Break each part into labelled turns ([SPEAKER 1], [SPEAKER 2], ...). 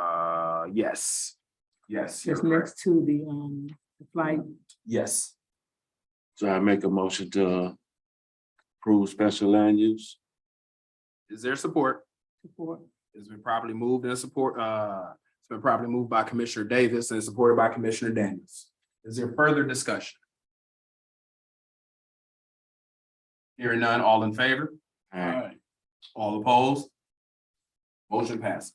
[SPEAKER 1] uh, yes. Yes, you're
[SPEAKER 2] It's
[SPEAKER 1] correct. Mm-hmm.
[SPEAKER 2] next to the, um, the flight.
[SPEAKER 1] Yes,
[SPEAKER 3] So I make a motion to approve special land use.
[SPEAKER 1] is there support?
[SPEAKER 2] support.
[SPEAKER 1] It's been properly moved and support, uh, it's been properly moved by Commissioner Davis and supported by Commissioner Daniels. Is there further discussion? Hearing none, all in favor?
[SPEAKER 3] Alright,
[SPEAKER 1] All opposed? Motion passes.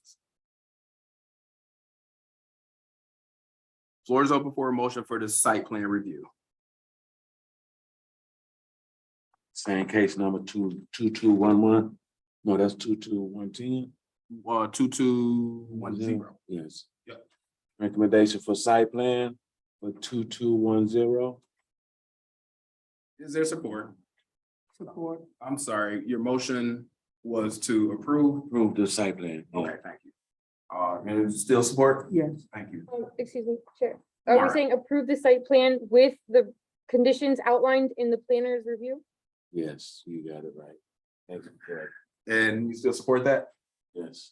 [SPEAKER 1] Floor is open for a motion for the site plan review.
[SPEAKER 3] same case number two, two, two, one, one. No, that's two, two, one, ten.
[SPEAKER 1] Uh, two, two, one, zero.
[SPEAKER 3] Yes.
[SPEAKER 1] Yep.
[SPEAKER 3] Recommendation for site plan for two, two, one, zero.
[SPEAKER 1] Is there support?
[SPEAKER 2] Support.
[SPEAKER 1] I'm sorry, your motion was to approve.
[SPEAKER 3] Approve the site plan. Oh,
[SPEAKER 1] Okay, thank you. Uh, and still support?
[SPEAKER 2] Yes,
[SPEAKER 1] Thank you.
[SPEAKER 4] Um, excuse me, Chair. Are we
[SPEAKER 1] Alright.
[SPEAKER 4] saying approve the site plan with the conditions outlined in the planner's review?
[SPEAKER 3] Yes, you got it right. Thank you, correct.
[SPEAKER 1] And you still support that?
[SPEAKER 3] Yes.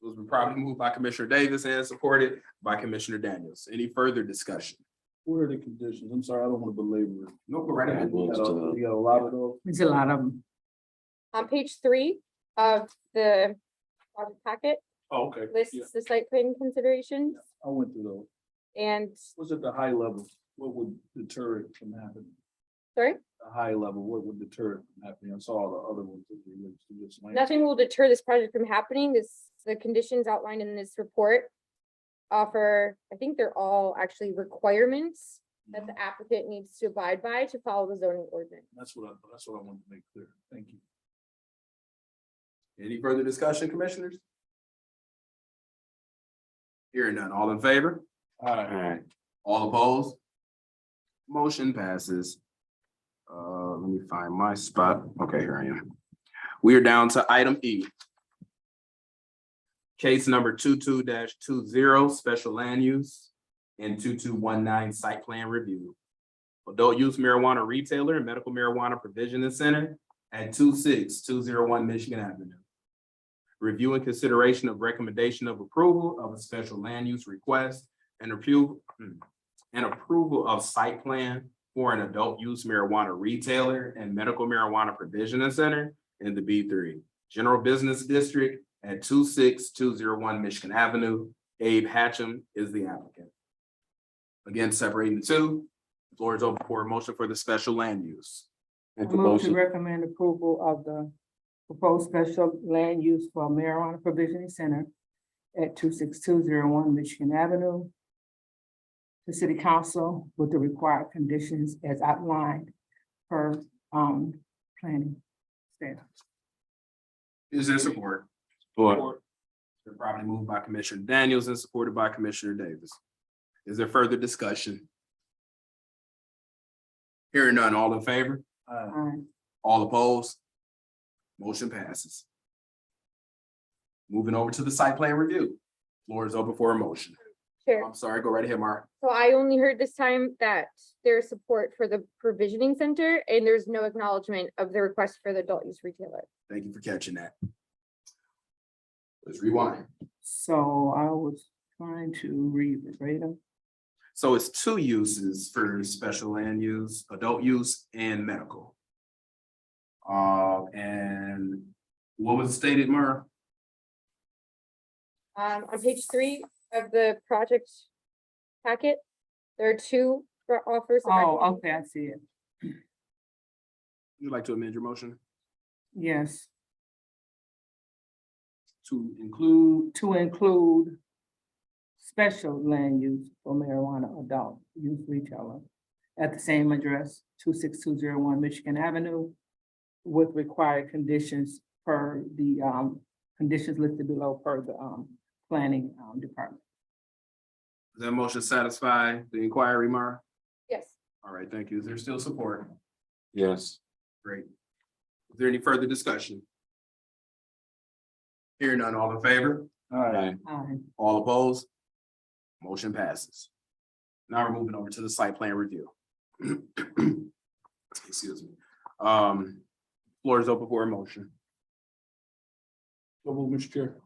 [SPEAKER 1] It was probably moved by Commissioner Davis and supported by Commissioner Daniels. Any further discussion?
[SPEAKER 5] What are the conditions? I'm sorry, I don't want to belabor it.
[SPEAKER 1] No, go right
[SPEAKER 3] I
[SPEAKER 1] ahead.
[SPEAKER 5] You
[SPEAKER 3] moved
[SPEAKER 5] got a-
[SPEAKER 3] to-
[SPEAKER 5] you got a lot of those.
[SPEAKER 2] it's a lot of them.
[SPEAKER 4] On page three of the project packet
[SPEAKER 5] Oh, okay. Yeah,
[SPEAKER 4] lists the site plan considerations
[SPEAKER 5] I went through those.
[SPEAKER 4] and,
[SPEAKER 5] What's at the high level? What would deter it from happening?
[SPEAKER 4] sorry,
[SPEAKER 5] The high level, what would deter it from happening? I saw the other ones. that we went through this last-
[SPEAKER 4] nothing will deter this project from happening. This, the conditions outlined in this report offer, I think they're all actually requirements that
[SPEAKER 5] Mm-hmm.
[SPEAKER 4] the applicant needs to abide by to follow the zoning ordinance.
[SPEAKER 5] That's what I, that's what I wanted to make clear. Thank you.
[SPEAKER 1] Any further discussion, commissioners? Hearing none, all in favor,
[SPEAKER 5] All right.
[SPEAKER 3] Alright,
[SPEAKER 1] all opposed? Motion passes. Uh, let me find my spot. Okay, here I am. We are down to item E. Case number 22 two zero, special land use and two two one nine site plan review. Adult use marijuana retailer and medical marijuana provision and center at two six two zero one Michigan Avenue. Review and consideration of recommendation of approval of a special land use request and approval hmm, and approval of site plan for an adult use marijuana retailer and medical marijuana provision and center in the B three general business district at two six two zero one Michigan Avenue. Abe Hatcham is the applicant. Again, separating the two, floor is open for a motion for the special land use.
[SPEAKER 3] make a
[SPEAKER 2] Move to
[SPEAKER 3] motion,
[SPEAKER 2] recommend approval of the proposed special land use for marijuana provisioning center at two six two zero one Michigan Avenue. The city council with the required conditions as outlined per, um, planning staff.
[SPEAKER 1] Is there support?
[SPEAKER 3] for,
[SPEAKER 1] They're probably moved by Commissioner Daniels and supported by Commissioner Davis. Is there further discussion? Hearing none, all in favor,
[SPEAKER 5] Uh,
[SPEAKER 2] Aye.
[SPEAKER 1] all opposed? Motion passes. Moving over to the site plan review. Floor is open for a motion.
[SPEAKER 4] Chair.
[SPEAKER 1] I'm sorry, go right ahead, Mark.
[SPEAKER 4] So I only heard this time that there's support for the provisioning center and there's no acknowledgement of the request for the adult use retailer.
[SPEAKER 1] Thank you for catching that. Let's rewind.
[SPEAKER 2] So I was trying to read the data.
[SPEAKER 1] So it's two uses for special land use, adult use and medical. Uh, and what was stated, Mara?
[SPEAKER 4] Um, on page three of the project packet, there are two for offers. of
[SPEAKER 2] Oh,
[SPEAKER 4] recommend-
[SPEAKER 2] okay, I see it.
[SPEAKER 1] Would you like to amend your motion
[SPEAKER 2] Yes,
[SPEAKER 1] to include?
[SPEAKER 2] to include special land use for marijuana adult use retailer at the same address, two six two zero one Michigan Avenue, with required conditions per the, um, conditions listed below per the, um, planning, um, department.
[SPEAKER 1] Does that motion satisfy the inquiry, Mara?
[SPEAKER 4] Yes,
[SPEAKER 1] All right, thank you. Is there still support?
[SPEAKER 3] yes.
[SPEAKER 1] Great. Is there any further discussion? Hearing none, all in favor?
[SPEAKER 5] All right.
[SPEAKER 3] Alright,
[SPEAKER 2] Aye.
[SPEAKER 1] All opposed? Motion passes. Now we're moving over to the site plan review. Excuse me. Um, floor is open for a motion.
[SPEAKER 5] So move, Mr. Chair.